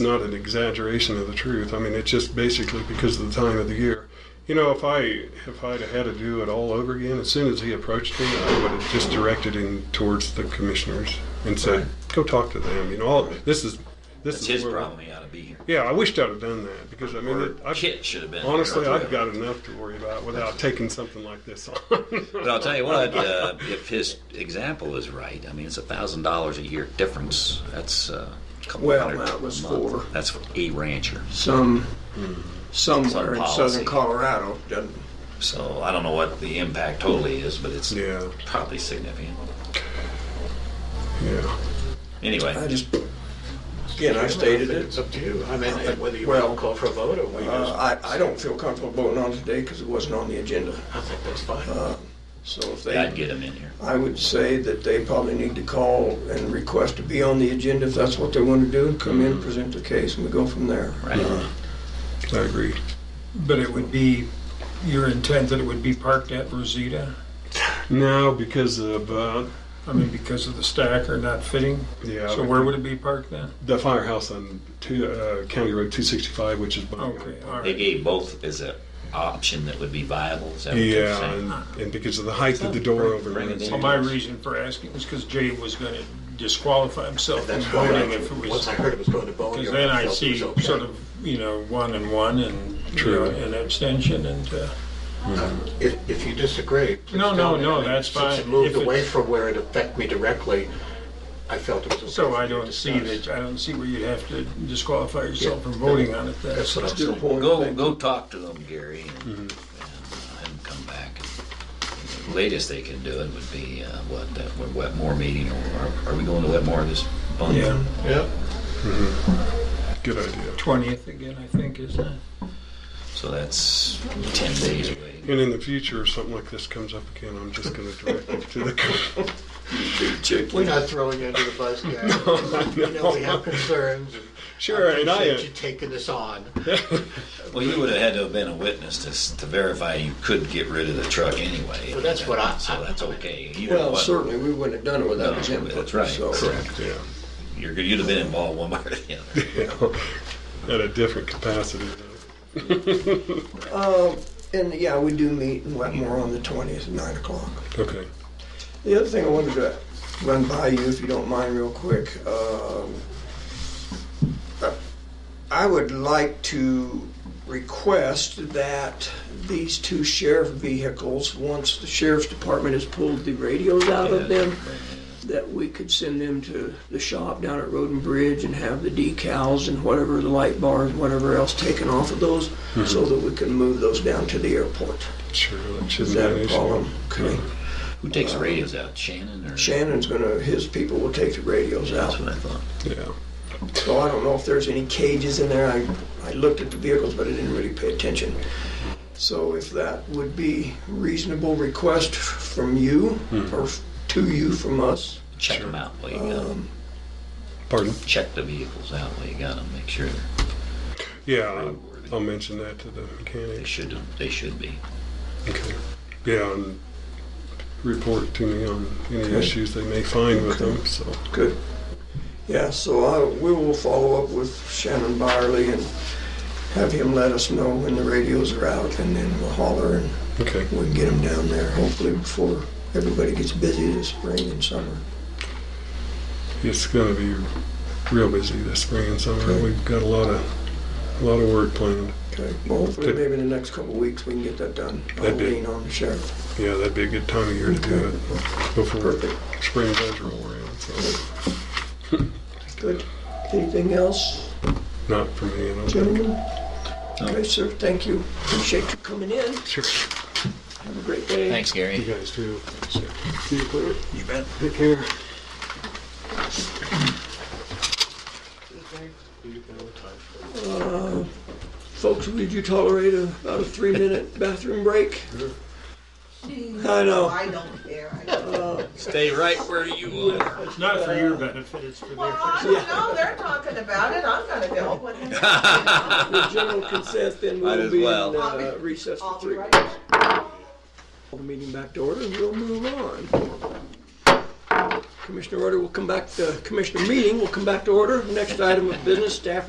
It's not an exaggeration of the truth. I mean, it's just basically because of the time of the year. You know, if I if I'd have had to do it all over again, as soon as he approached me, I would have just directed him towards the commissioners and said, "Go talk to them." You know, all, this is this That's is his where- problem. He ought to be here. Yeah, I wished I'd have done that because I mean, it, Or I, Kit should have been. here. honestly, I've got enough to worry about without taking something like this on. But I'll tell you what, uh, if his example is right, I mean, it's a thousand dollars a year difference. That's uh, a couple Well, hundred that was a month. for- That's for a rancher. some, somewhere in Hmm. Some policy. southern Colorado, doesn't, So I don't know what the impact totally is, but it's yeah, probably significant. yeah. I Anyway, just, again, I stated it. It's up to you. I mean, whether you Well, want to call for a vote or we just, Uh, I, I don't feel comfortable voting on today because it wasn't on the agenda. Uh, I think that's fine. So if I'd they, get him in here. I would say that they probably need to call and request to be on the agenda if that's what they want to do, and come in, present their case, and we go from there. Hmm. Right. Uh, I agree. But it would be, your intent that it would be parked at Rosita? No, because of uh, I mean, because of the stack or not fitting? yeah. So where would it be parked then? the firehouse on two, uh, County Road 265, which is by Okay, all They right. gave both as an option that would be viable. Is that what you're Yeah, saying? and, and because of the height of the door over Bring it in. Well, my reason for asking is because Jay was going to disqualify himself from That's why, voting if it I- was, once I heard it was going to Boneyard. because then I I felt it see was okay. sort of, you know, one and one and, you know, True. an abstention and, uh, If, if you disagree, please No, tell no, me. no, I mean, that's Since it fine. moved If it- away from where it affected me directly, I felt it was okay. so for I you to don't see discuss. that, I don't see where you'd have to disqualify yourself from voting on it then. That's what I'm Still saying. point. Go, go talk to them, Gary, and, and uh, have them come back. The latest they can do it would be, uh, what, that Wet- Wetmore meeting, or are we going to Wetmore this month? Yeah, Yeah. Good idea. 20th again, I think, isn't it? So that's ten days away. And in the future, if something like this comes up again, I'm just going to direct it to the. We're not throwing you under the bus, guys. You know, we have concerns. sure, and I. appreciate you taking this on. Well, you would have had to have been a witness to, s- to verify you could get rid of the truck anyway. Well, that's what I- So that's okay. Either Well, one, certainly, we wouldn't have done it without his No, input. that's right. so- Correct. yeah, You're, good- you'd have been involved one way or the other. at a different capacity. though. And, yeah, we do meet in Wetmore on the 20th at 9 o'clock. Okay. The other thing I wanted to run by you, if you don't mind, real quick. um, I would like to request that these two sheriff vehicles, once the sheriff's department has pulled the radios out of them, that we could send them to the shop down at Roden Bridge and have the decals and whatever, the light bars, whatever else taken off of those, so that we can move those down to the airport. Sure, that Is shouldn't that be an a issue. problem? Okay. Who takes the radios out, Shannon or? Shannon's gonna, his people will take the radios out. That's what I thought. Yeah. So I don't know if there's any cages in there. I, I looked at the vehicles, but I didn't really pay attention. So if that would be reasonable request from you, or f- to you from us, Check them out while you got 'em. Pardon? Check the vehicles out while you got them, make sure they're- Yeah, I'll, I'll mention that to the mechanic. they should, they should be. Okay. Yeah, and report to me on any issues they may find with them. So, good. Yeah, so I, we will follow up with Shannon Byerly and have him let us know when the radios are out, and then we'll holler and okay. we can get them down there, hopefully before everybody gets busy this spring and summer. It's going to be real busy this spring and summer. We've got a lot of a lot of work planned. Okay, well, hopefully Good. maybe in the next couple of weeks we can get that done. I'll That'd be- lean on the sheriff. Yeah, that'd be a good time of year to do it before Perfect. spring does roll around. So, Good. Anything else, not for me. I don't think. gentlemen? Okay, sir, thank you. Appreciate you coming in. Sure. Have a great day. Thanks, Gary. You guys too. You clear? You bet. Take care. Folks, would you tolerate a, about a three-minute bathroom break? I know. Oh, I don't care. I don't care. Stay right where you are. It's not for your benefit, it's for Well, their. I don't know. They're talking about it. I'm gonna go. What the heck? With general consent, then Might we'll as be in well. uh, recess for I'll be three. right back. Call the meeting back to order, and we'll move on. Commissioner order will come back, the commissioner meeting will come back to order. Next item of business, staff